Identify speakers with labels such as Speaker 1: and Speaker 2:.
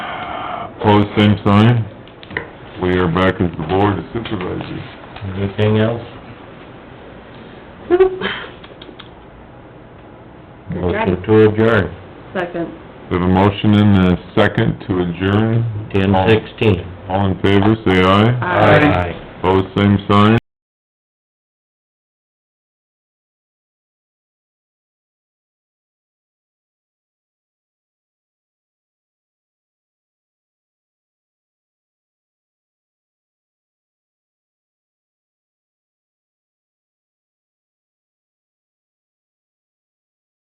Speaker 1: Opposed, same sign. We are back as the board of supervisors.
Speaker 2: Anything else? Motion to adjourn,
Speaker 3: Second.
Speaker 1: We have a motion and a second to adjourn.
Speaker 2: ten sixteen.
Speaker 1: All in favor, say aye.
Speaker 3: Aye.
Speaker 1: Opposed, same sign.